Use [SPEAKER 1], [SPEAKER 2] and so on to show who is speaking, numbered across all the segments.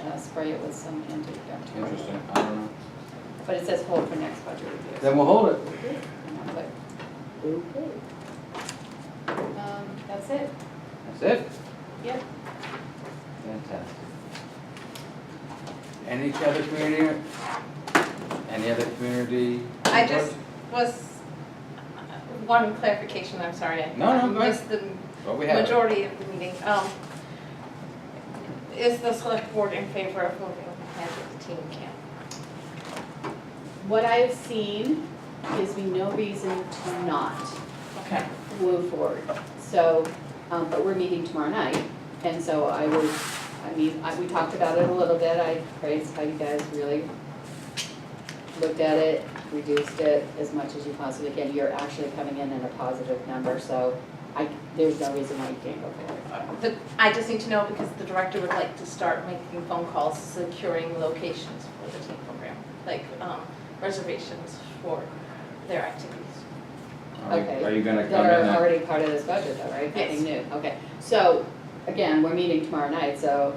[SPEAKER 1] uh, spray it with some antibacterial.
[SPEAKER 2] Interesting, I don't know.
[SPEAKER 1] But it says hold for next budget review.
[SPEAKER 2] Then we'll hold it.
[SPEAKER 1] And I was like,
[SPEAKER 3] Okay.
[SPEAKER 1] um, that's it,
[SPEAKER 2] That's it.
[SPEAKER 1] yep.
[SPEAKER 2] Fantastic. Any other community, any other community?
[SPEAKER 4] I
[SPEAKER 2] reports?
[SPEAKER 4] just was, one clarification, I'm sorry. I
[SPEAKER 2] No, no, go ahead.
[SPEAKER 4] Missed the
[SPEAKER 2] What we have,
[SPEAKER 4] majority of the meeting. Um, Is the select board in favor of moving ahead with the teen camp?
[SPEAKER 1] What I have seen gives me no reason to not
[SPEAKER 4] Okay.
[SPEAKER 1] move forward. So, um, but we're meeting tomorrow night, and so I would, I mean, I, we talked about it a little bit, I praised how you guys really looked at it, reduced it as much as you possibly can, you're actually coming in at a positive number, so I, there's no reason why you can't go forward.
[SPEAKER 4] The- I just need to know because the director would like to start making phone calls, securing locations for the teen program, like um, reservations for their activities.
[SPEAKER 2] are you-
[SPEAKER 1] okay,
[SPEAKER 2] are you gonna come in
[SPEAKER 1] That are
[SPEAKER 2] at,
[SPEAKER 1] already part of this budget though, right?
[SPEAKER 4] Yes.
[SPEAKER 1] Nothing new, okay. So, again, we're meeting tomorrow night, so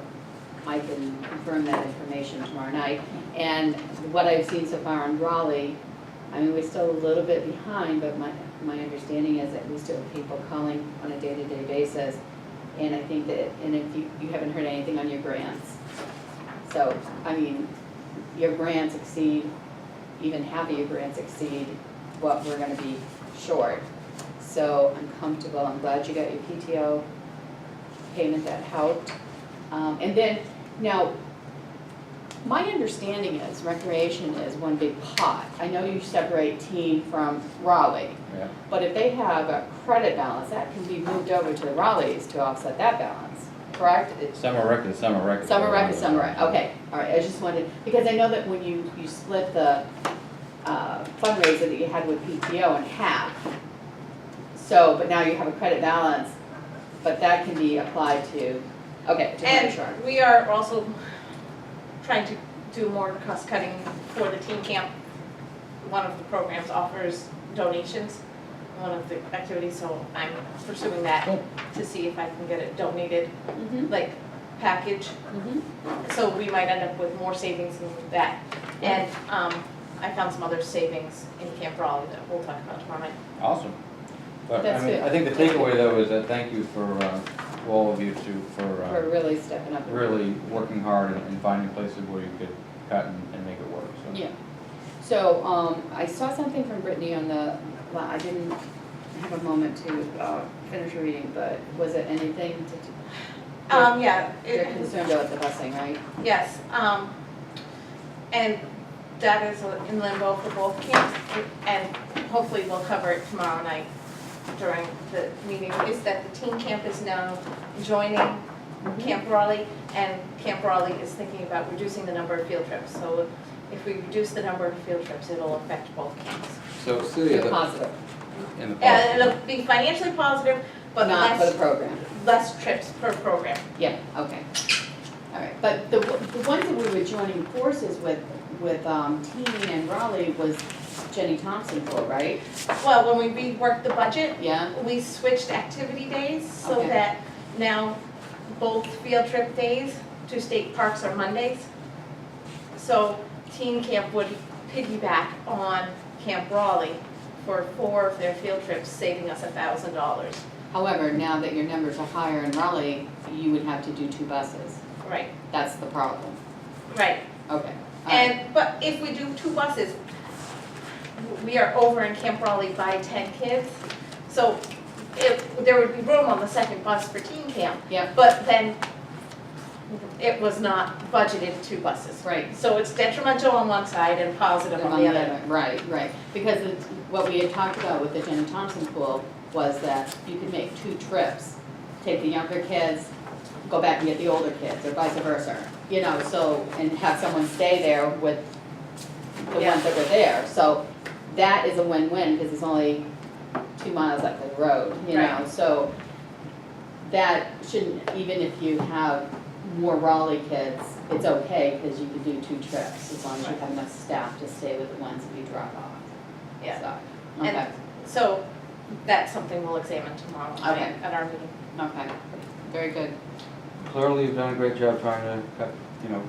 [SPEAKER 1] I can confirm that information tomorrow night. And what I've seen so far in Raleigh, I mean, we're still a little bit behind, but my, my understanding is that we still have people calling on a day-to-day basis. And I think that, and if you, you haven't heard anything on your grants. So, I mean, your grants exceed, even half of your grants exceed what we're gonna be short. So I'm comfortable, I'm glad you got your PTO payment that helped. Um, and then, now, my understanding is recreation is one big pot. I know you separate teen from Raleigh,
[SPEAKER 2] yeah,
[SPEAKER 1] but if they have a credit balance, that can be moved over to the Raleighs to offset that balance, correct? It-
[SPEAKER 2] summer rec is summer rec.
[SPEAKER 1] Summer rec is summer rec, okay, all right, I just wanted, because I know that when you, you split the uh, fundraiser that you had with PTO in half, so, but now you have a credit balance, but that can be applied to, okay, to Grand Shark.
[SPEAKER 4] And we are also trying to do more cost cutting for the teen camp. One of the programs offers donations, one of the activities, so I'm pursuing that
[SPEAKER 2] Cool.
[SPEAKER 4] to see if I can get it donated,
[SPEAKER 1] Mhm,
[SPEAKER 4] like package.
[SPEAKER 1] mhm.
[SPEAKER 4] So we might end up with more savings than that. And um, I found some other savings in Camp Raleigh that we'll talk about tomorrow night.
[SPEAKER 2] Awesome. But I
[SPEAKER 1] That's
[SPEAKER 2] mean,
[SPEAKER 1] good.
[SPEAKER 2] I think the takeaway though is that thank you for, uh, to all of you two for,
[SPEAKER 1] For
[SPEAKER 2] uh,
[SPEAKER 1] really stepping up. and-
[SPEAKER 2] really working hard and- and finding places where you could cut and, and make it work, so.
[SPEAKER 1] Yeah. So, um, I saw something from Brittany on the, well, I didn't have a moment to, uh, finish reading, but was it anything to,
[SPEAKER 4] Um, yeah. it-
[SPEAKER 1] they're concerned about the busing, right?
[SPEAKER 4] Yes, um, and that is in limbo for both camps, and hopefully we'll cover it tomorrow night during the meeting, is that the teen camp is now joining
[SPEAKER 1] Mm-hmm.
[SPEAKER 4] Camp Raleigh, and Camp Raleigh is thinking about reducing the number of field trips, so if we reduce the number of field trips, it'll affect both camps.
[SPEAKER 2] So Celia,
[SPEAKER 1] You're
[SPEAKER 2] the,
[SPEAKER 1] positive,
[SPEAKER 2] in the.
[SPEAKER 4] And it'll be financially positive, but
[SPEAKER 1] not for the
[SPEAKER 4] less,
[SPEAKER 1] program.
[SPEAKER 4] less trips per program.
[SPEAKER 1] Yeah, okay. All right, but the, w- the ones that we were joining forces with, with, um, Teen and Raleigh was Jenny Thompson for, right?
[SPEAKER 4] Well, when we reworked the budget,
[SPEAKER 1] Yeah?
[SPEAKER 4] We switched activity days so
[SPEAKER 1] Okay.
[SPEAKER 4] that now both field trip days to state parks are Mondays. So teen camp would piggyback on Camp Raleigh for four of their field trips, saving us a thousand dollars.
[SPEAKER 1] However, now that your numbers are higher in Raleigh, you would have to do two buses.
[SPEAKER 4] Right,
[SPEAKER 1] That's the problem.
[SPEAKER 4] right.
[SPEAKER 1] Okay. all right.
[SPEAKER 4] And, but if we do two buses, we are over in Camp Raleigh by ten kids. So if, there would be room on the second bus for teen camp,
[SPEAKER 1] Yep,
[SPEAKER 4] But then it was not budgeted two buses.
[SPEAKER 1] right.
[SPEAKER 4] So it's detrimental on one side and positive on the other.
[SPEAKER 1] Right, right, because it's, what we had talked about with the Jenny Thompson pool was that you could make two trips, take the younger kids, go back and get the older kids, or vice versa, you know, so, and have someone stay there with the
[SPEAKER 4] Yeah.
[SPEAKER 1] ones that were there, so that is a win-win, because it's only two miles up the road, you know,
[SPEAKER 4] Right.
[SPEAKER 1] so that shouldn't, even if you have more Raleigh kids, it's okay, because you can do two trips, as long as you have enough staff to stay with the ones that you drop off.
[SPEAKER 4] Yeah.
[SPEAKER 1] So,
[SPEAKER 4] And-
[SPEAKER 1] Okay,
[SPEAKER 4] So that's something we'll examine tomorrow
[SPEAKER 1] Okay.
[SPEAKER 4] night at our meeting.
[SPEAKER 1] okay, very good.
[SPEAKER 2] Clearly, you've done a great job trying to cut, you know,